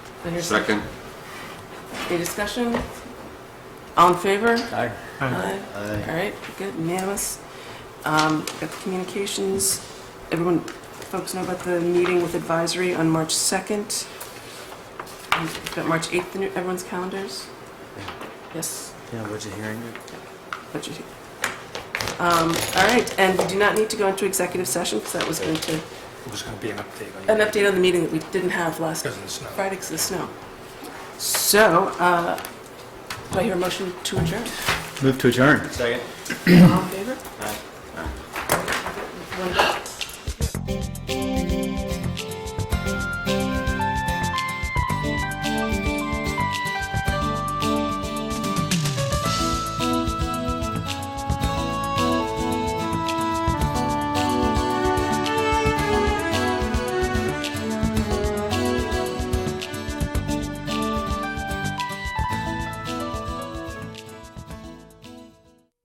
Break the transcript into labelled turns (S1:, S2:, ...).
S1: There's
S2: Second.
S1: Any discussion? All in favor?
S3: Aye.
S1: Aye. All right, good, unanimous. Um, Got the communications. Everyone, folks know about the meeting with advisory on March 2nd. And we've Got March 8th in everyone's calendars? Yes,
S3: Yeah, budget hearing.
S1: but you... Um, All right, and we do not need to go into executive session because that was going to,
S4: It was going to be an update on
S1: an update on the meeting that we didn't have last
S4: Because of the snow.
S1: Friday because of the snow. So, uh, do I hear a motion to adjourn?
S3: Move to adjourn.
S1: All in favor? Aye.